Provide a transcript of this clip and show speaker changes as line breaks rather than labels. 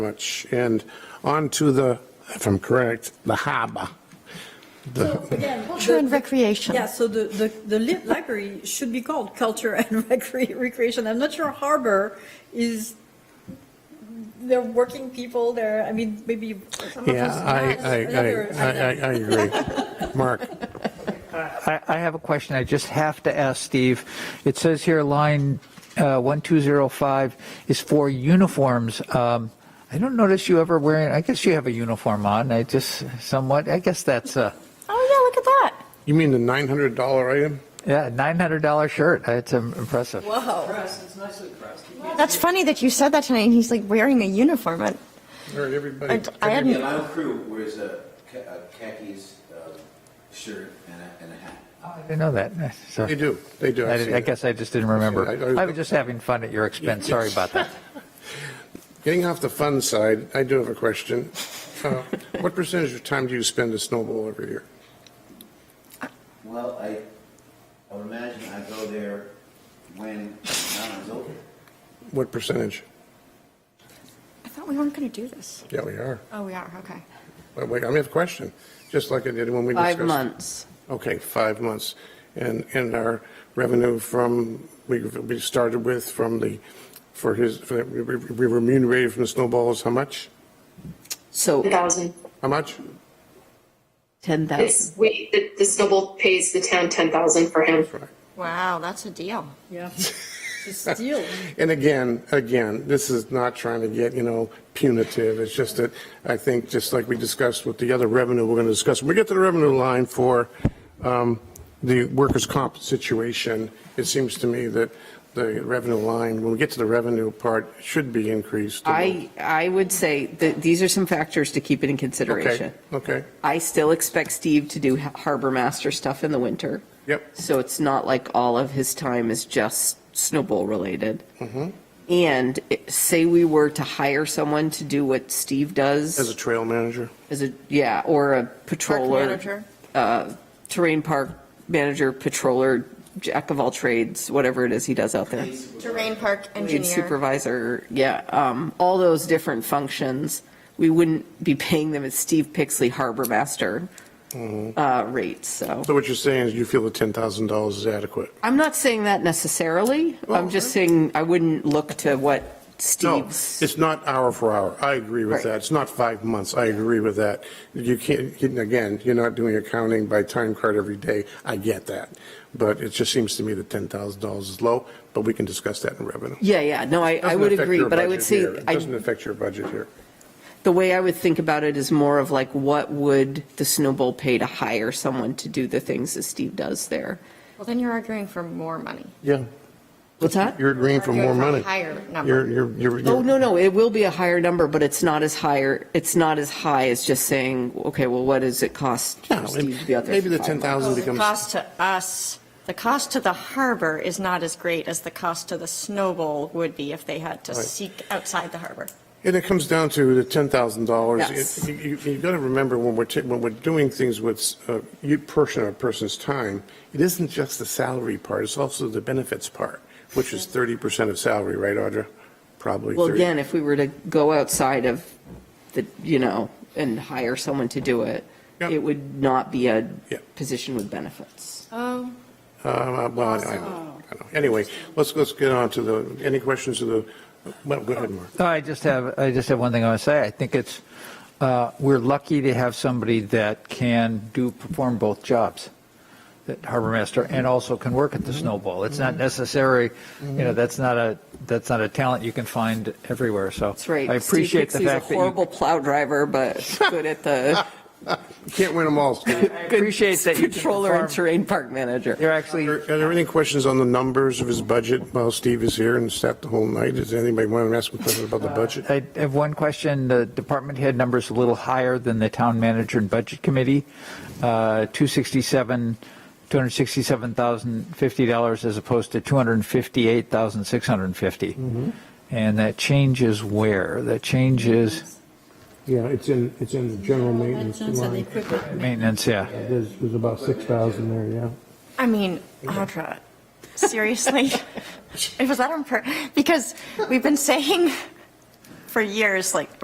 much. And onto the, if I'm correct, the harbor.
So again,
Culture and
the-
recreation.
Yeah, so the, the, the lit library should be called culture and recre- recreation. I'm not sure harbor is, they're working people, they're, I mean, maybe.
Oh,
some of
Yeah,
us
I,
not,
I,
others-
I, I, I agree. Mark,
I, I have a question I just have to ask Steve. It says here line uh, 1205 is for uniforms. Um, I don't notice you ever wearing, I guess you have a uniform on. I just somewhat, I guess that's a,
Oh, yeah, look at that.
you mean the $900 item?
yeah, $900 shirt. It's um, impressive.
Wow.
Press, it's nicely pressed. You can't-
That's funny that you said that tonight, and he's like wearing a uniform. I-
Or
I,
everybody?
I
The
hadn't,
Lyle crew wears a ca- a khakis uh, shirt and a- and a hat.
Oh, I didn't know that. So,
They do, they do.
I,
see
did- I
that.
guess I just didn't remember.
I see. I-
I, was just having fun at your expense. Sorry about that.
Getting off the fun side, I do have a question. Uh, What percentage of time do you spend at snowball every year?
Well, I, I would imagine I go there when Mount is over.
What percentage?
I thought we weren't going to do this.
Yeah, we are.
Oh, we are, okay.
But wait, I have a question, just like I did when we discussed.
Five months.
Okay, five months. And, and our revenue from, we, we started with from the, for his, for that- we we remunerated from the snowballs, how much?
So
10,000.
How much?
10,000.
It's, we, the, the snowball pays the town 10,000 for him.
Wow, that's a deal.
Yeah. To steal.
And again, again, this is not trying to get, you know, punitive. It's just that I think, just like we discussed with the other revenue we're going to discuss, when we get to the revenue line for um, the workers' comp situation, it seems to me that the revenue line, when we get to the revenue part, should be increased.
I, I would say that these are some factors to keep in
Okay,
consideration.
okay,
I still expect Steve to do harbor master stuff in the winter.
yep,
So it's not like all of his time is just snowball related.
Mm-hmm.
And it- say we were to hire someone to do what Steve does.
as a trail manager.
As a, yeah, or a
Park
patroller,
manager.
uh, terrain park manager, patroller, jack of all trades, whatever it is he does out there.
Terrain park
Lead
engineer.
supervisor, yeah, um, all those different functions, we wouldn't be paying them at Steve Pixley Harbor Master uh, rates, so.
Mm-hmm. So what you're saying is you feel the $10,000 is adequate?
I'm not saying that necessarily,
Well, uh,
I'm just saying I wouldn't look to what
No,
Steve's.
it's not hour for hour. I agree with
Right.
that. It's not five months. I agree with that. You can't, you- again, you're not doing accounting by time card every day. I get that. But it just seems to me that $10,000 is low, but we can discuss that in revenue.
Yeah, yeah, no, I, I
Doesn't
would
affect
agree,
your
but I
budget
would say,
here. It
I
doesn't affect your budget here.
the way I would think about it is more of like, what would the snowball pay to hire someone to do the things that Steve does there?
Well, then you're arguing for more money.
Yeah.
What's that?
You're agreeing for more
Arguing a
money.
Higher
You're,
number.
you're, you're.
Oh, no, no, it will be a higher number, but it's not as higher, it's not as high as just saying, okay, well, what does it cost
No,
for Steve to be out there?
Maybe the
for five months?
10,000
The
becomes.
cost to us, the cost to the harbor is not as great as the cost to the snowball would be if they had to
Right.
seek outside the harbor.
And it comes down to the ten thousand dollars.
Yes.
You've got to remember when we're, ta- when we're doing things with uh, you portion of a person's time, it isn't just the salary part, it's also the benefits part, which is thirty percent of salary, right, Audra? Probably
Well,
thirty.
again, if we were to go outside of the, you know, and hire someone to do it,
Yeah.
it would not be a
Yeah.
position with benefits.
Oh,
Uh, Well, I- I don't know. Anyway, let's, let's get on to the, any questions of the, well, go ahead, Mark.
No, I just have, I just have one thing I want to say. I think it's, uh, we're lucky to have somebody that can do, perform both jobs, that harbor master, and also can work at the snowball. It's not necessary, you know, that's not a, that's not a talent you can find everywhere, so.
That's right.
I appreciate the
Steve Pixley's
fact that
a
you,
horrible plow driver, but good at the.
You Can't win them all, Steve.
I
appreciate that you can
Controller and
perform-
terrain park manager.
you're actually,
Are are there any questions on the numbers of his budget while Steve is here and sat the whole night? Does anybody want to ask him questions about the budget?
I have one question. The department head number's a little higher than the town manager and budget committee. Uh, 267, $267,050 as opposed to 258,650. And that change is where? That change is
Yeah, it's in, it's in the general maintenance line.
maintenance, yeah.
There's, there's about 6,000 there, yeah.
I mean, Audra, seriously? it was that on pur- because we've been saying for years, like,